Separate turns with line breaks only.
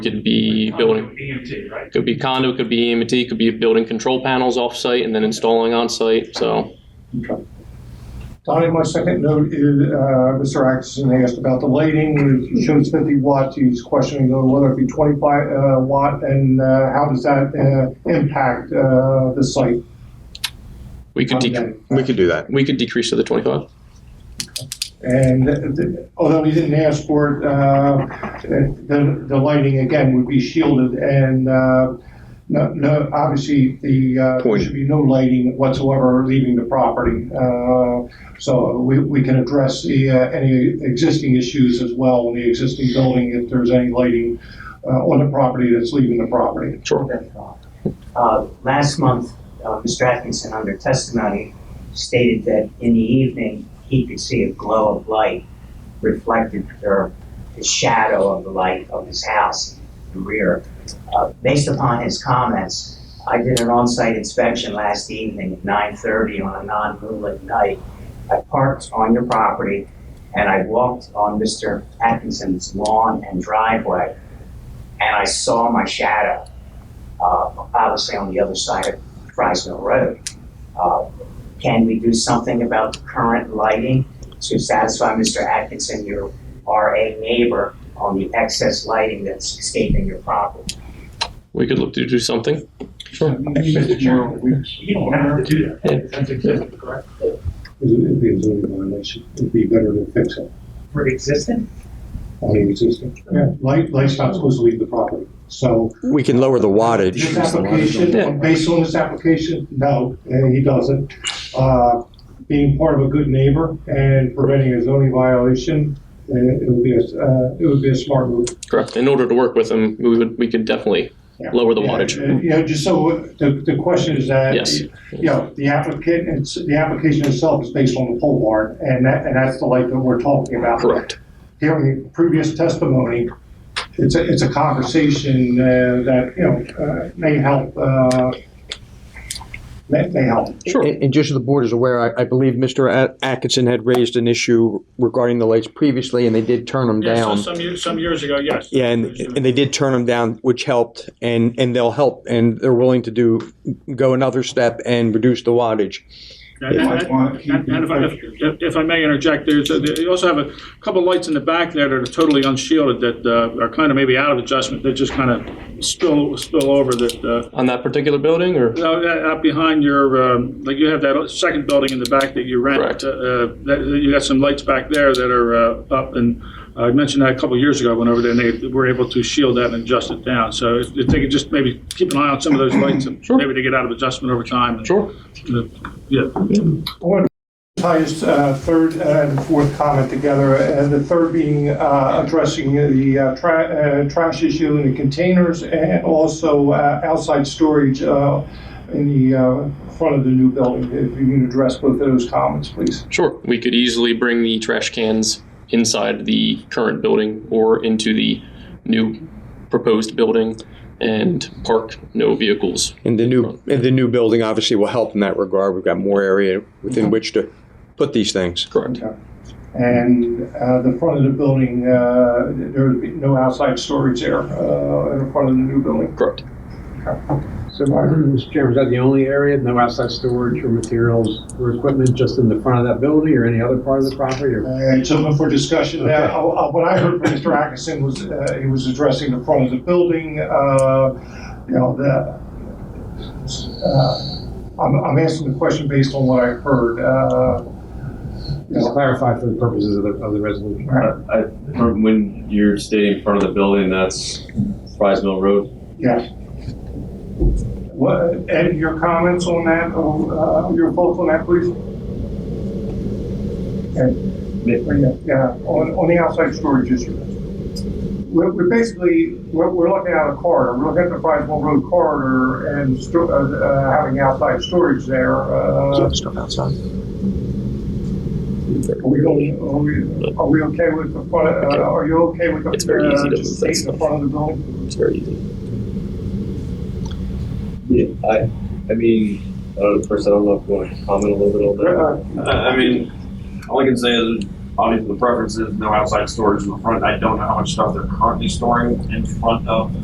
could be building,
EMT, right?
could be condo, could be EMT, could be building control panels off-site and then installing on-site, so.
Donnie, my second note is, uh, Mr. Atkinson asked about the lighting, it shows fifty watts, he's questioning whether it be twenty-five, uh, watt, and, uh, how does that, uh, impact, uh, the site?
We could, dec-
We could do that.
we could decrease to the twenty-five.
And the- although he didn't ask for it, uh, the, the lighting again would be shielded and, uh, no, no, obviously the, uh, there
Point.
should be no lighting whatsoever leaving the property. Uh, So we, we can address the, uh, any existing issues as well in the existing building if there's any lighting uh, on the property that's leaving the property.
Sure.
Uh, Last month, uh, Mr. Atkinson, under testimony, stated that in the evening, he could see a glow of light reflected, or the shadow of the light of his house in the rear. Uh, Based upon his comments, I did an on-site inspection last evening at 9:30 on a non-moonlit night. I parked on your property, and I walked on Mr. Atkinson's lawn and driveway, and I saw my shadow uh, obviously on the other side of Frisville Road. Uh, Can we do something about the current lighting to satisfy Mr. Atkinson, your RA neighbor, on the excess lighting that's escaping your property?
We could look to do something.
Mr. Chairman, we- you don't have to do that.
Yeah.
That's existing, correct?
It'd be a zoning violation, it'd be better to fix it
For existing?
on the existing. Yeah, light, light's not supposed to leave the property, so
We can lower the
This
wattage.
application, uh,
Yeah.
based on this application, no, uh, he doesn't. Uh, Being part of a good neighbor and preventing a zoning violation, uh, it would be a, s- uh, it would be a smart move.
Correct. In order to work with them, we would, we could definitely lower the wattage.
Yeah, uh, You know, just so, the, the question is that.
Yes.
You know, the applicant, it's, the application itself is based on the pole barn, and that, and that's the light that we're talking about
Correct.
hearing previous testimony, it's a, it's a conversation uh, that, you know, uh, may help, uh, may, may help.
Sure.
And and just so the board is aware, I, I believe Mr. At- Atkinson had raised an issue regarding the lights previously, and they did turn them
Yeah, so
down.
some years, some years ago, yes.
Yeah, and, and they did turn them down, which helped, and, and they'll help, and they're willing to do, go another step and reduce the wattage.
And- and- and- and if I- if- If I may interject, there's, a- they also have a couple lights in the back there that are totally unshielded that uh, are kind of maybe out of adjustment, that just kind of spill, spill over that, uh,
On that particular building or?
no, that- uh, out behind your, um, like you have that second building in the back that you rent.
Correct.
uh, uh, that- that You got some lights back there that are uh, up, and I mentioned that a couple years ago, I went over there, and they were able to shield that and adjust it down. So if if they could just maybe keep an eye on some of those lights, and
Sure.
maybe they get out of adjustment over time. and-
Sure.
Uh, Yeah.
I want to tie his uh, third and fourth comment together, and the third being uh, addressing the uh, tra- uh, trash issue in the containers and also uh, outside storage uh, in the uh, front of the new building. If you can address both of those comments, please.
Sure. We could easily bring the trash cans inside the current building or into the new proposed building and park no vehicles.
And the new, and the new building obviously will help in that regard. We've got more area within which to put these things.
Correct.
And uh, the front of the building, uh, there would be no outside storage there uh, in the front of the new building.
Correct.
So, Mr. Chairman, is that the only area, no outside storage or materials or equipment just in the front of that building or any other part of the property or?
Uh, It's open for discussion. Now, uh, uh, What I heard from Mr. Atkinson was, uh, he was addressing the front of the building, uh, you know, the, uh, I'm I'm asking the question based on what I heard. uh, you
Just
know,
clarify for the purposes of the, of the resolution.
uh,
I, I- from when you're stating in front of the building, that's Fries Mill Road.
Yes. What, Ed, your comments on that, uh, your vote on that, please? Okay. Yeah, on, on the outside storage issue. We're, we're basically, we're, we're looking at a corridor, we're looking at the Frisville Road corridor and sto- uh, uh, having outside storage there, uh.
Stuff outside.
Are we, going- are we, are we okay with the front, uh, are you okay with the,
It's very easy
uh,
to move
just
that
staying in
stuff.
the front of the building?
It's very easy.
Yeah, I, I mean, I don't know, first, I don't know if you want to comment a little bit on
Uh,
that. I, I mean, all I can say is
obviously the preference is no outside storage in the front. I don't know how much stuff they're currently storing in front of